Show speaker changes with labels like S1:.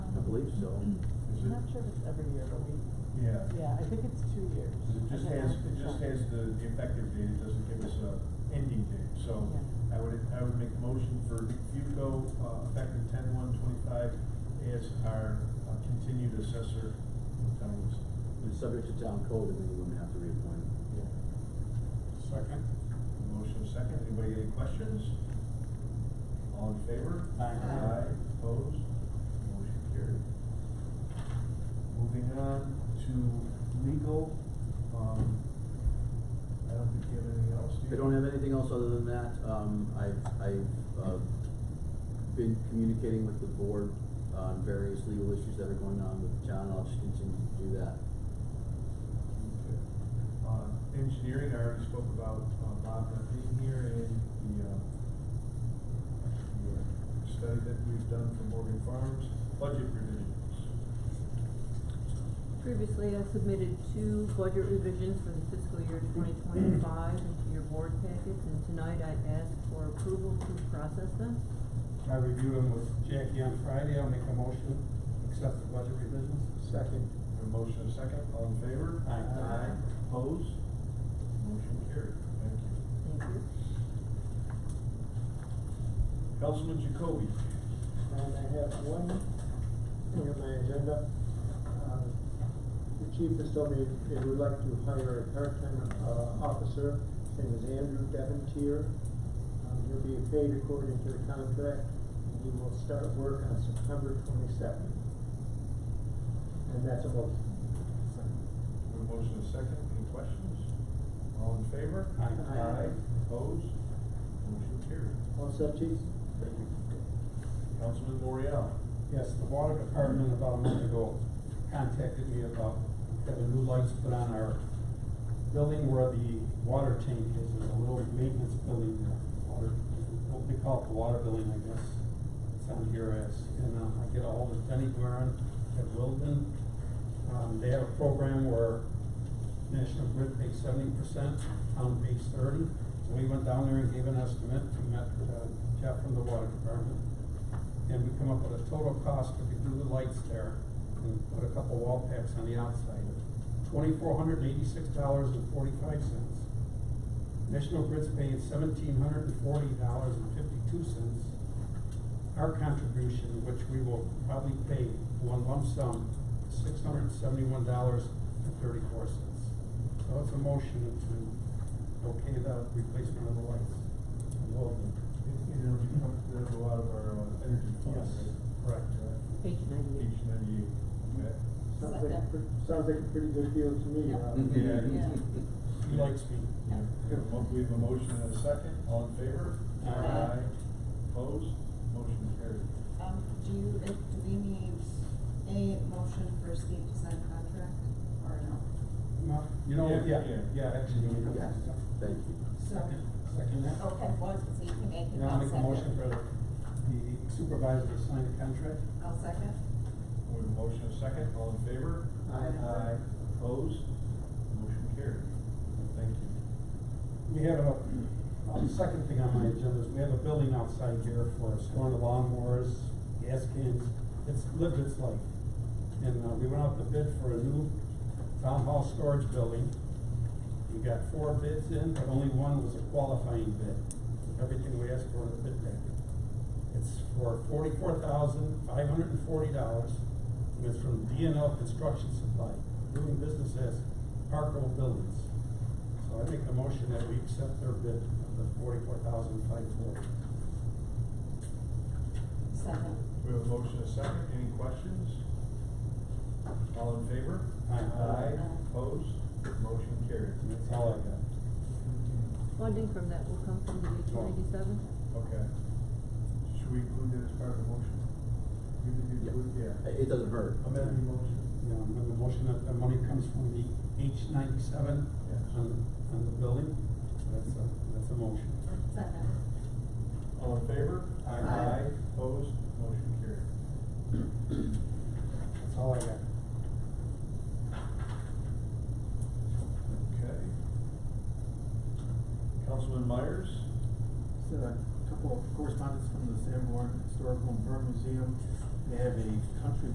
S1: years, so. is
S2: I'm
S1: it-
S2: not sure if it's every year, but we,
S1: Yeah.
S2: yeah, I think it's two years.
S1: It just
S2: Again, I
S1: has,
S2: have to
S1: it just
S2: check.
S1: has the the effective date, it doesn't give us a ending date, so
S2: Yeah.
S1: I would, I would make the motion for FUCO, uh, effective ten one twenty-five as our uh, continued assessor. times.
S3: It's subject to town code, and then you wouldn't have to reappoint him.
S1: Second. Motion second, anybody any questions? All in favor?
S4: Aye.
S1: Aye, opposed, motion carried. Moving on to legal, um, I don't think you have anything else, do you?
S3: They don't have anything else other than that, um, I've, I've, uh, been communicating with the board on various legal issues that are going on with the town, I'll just continue to do that.
S1: Okay. Uh, engineering, I already spoke about, uh, Bob not being here and the, uh, the uh, study that we've done for Morgan Farms, budget revisions.
S5: Previously, I submitted two budget revisions for the fiscal year twenty twenty-five into your board packets, and tonight I ask for approval to process them.
S4: I reviewed them with Jackie on Friday, I'll make a motion, accept the budget revisions. Second.
S1: A motion and a second, all in favor?
S4: Aye.
S1: Aye, opposed? Motion carried, thank you.
S5: Thank you.
S1: Councilman Jacoby.
S6: And I have one thing on my agenda. Uh, The chief has told me they would like to hire a part-time, uh, officer, his name is Andrew Devontier. Um, he'll be paid according to the contract, and he will start work on September twenty-second. And that's a motion.
S1: A motion and a second, any questions? All in favor?
S4: Aye.
S6: Aye.
S1: opposed? Motion carried.
S6: All set, chief?
S1: Thank you. Councilman Boreal.
S4: Yes, the water department about a month ago contacted me about having new lights put on our building where the water tank is, there's a little maintenance building there. Water, what they call it, the water building, I guess, it's on here as, and uh, I get a hold of Denny Guerin at Wilden. Um, they have a program where National Grid pays seventy percent, town pays thirty. So we went down there and gave an estimate, we met uh, Jeff from the water department and we come up with a total cost if we do the lights there and put a couple wall packs on the outside. Twenty-four hundred and eighty-six dollars and forty-five cents. National Grid's paying seventeen hundred and forty dollars and fifty-two cents. Our contribution, which we will probably pay one lump sum, six hundred and seventy-one dollars and thirty-four cents. So it's a motion to okay the replacement of the lights.
S1: You know, you come, there's a lot of our uh, energy funds.
S4: Yes,
S1: right?
S4: correct.
S1: Uh,
S5: Page ninety-eight.
S1: Page ninety-eight, okay.
S6: Sounds like, a pre- sounds like a pretty good deal to me, uh,
S1: Yeah.
S4: He likes me.
S1: We have a mo- We have a motion and a second, all in favor?
S4: Aye.
S1: Opposed, motion carried.
S7: Um, do you, if, do we need a motion for Steve to sign a contract or no?
S4: No, You know,
S1: Yeah,
S4: yeah,
S1: yeah.
S4: yeah, actually, yeah.
S3: Yes, thank you.
S4: Second, second, yeah.
S7: Okay, well, so you can make it,
S4: Now I'll
S7: I'll
S4: make a
S7: Oh,
S4: motion
S7: second.
S4: for the supervisor to sign the contract.
S7: I'll second.
S1: We have a motion and a second, all in favor?
S6: Aye.
S1: Aye. Opposed, motion carried. Thank you.
S4: We have a, uh, second thing on my agenda is we have a building outside here for storing the lawnmowers, gas cans. It's lived its life. And, uh, we went out to bid for a new town hall storage building. We got four bids in, but only one was a qualifying bid. Everything we asked for in the bid packet. It's for forty-four thousand, five hundred and forty dollars. And it's from DNL Construction Supply, doing business as Parkville Buildings. So I make a motion that we accept their bid of the forty-four thousand, five forty.
S7: Second.
S1: We have a motion and a second, any questions? All in favor?
S4: Aye.
S1: Aye, opposed, motion carried.
S4: And that's all I got.
S5: Funding from that will come from the H one eighty-seven.
S1: Okay. Should we include that as part of the motion? You can do, yeah.
S3: It- It doesn't hurt.
S1: Amend the motion.
S4: You know, make a motion that the money comes from the H ninety-seven
S1: Yes.
S4: on, on the building. That's a, that's a motion.
S7: Second.
S1: All in favor?
S4: Aye.
S1: Opposed? Motion carried.
S4: That's all I got.
S1: Okay. Councilman Myers?
S8: So a couple of correspondence from the Sanborn Historical and Burn Museum. They have a country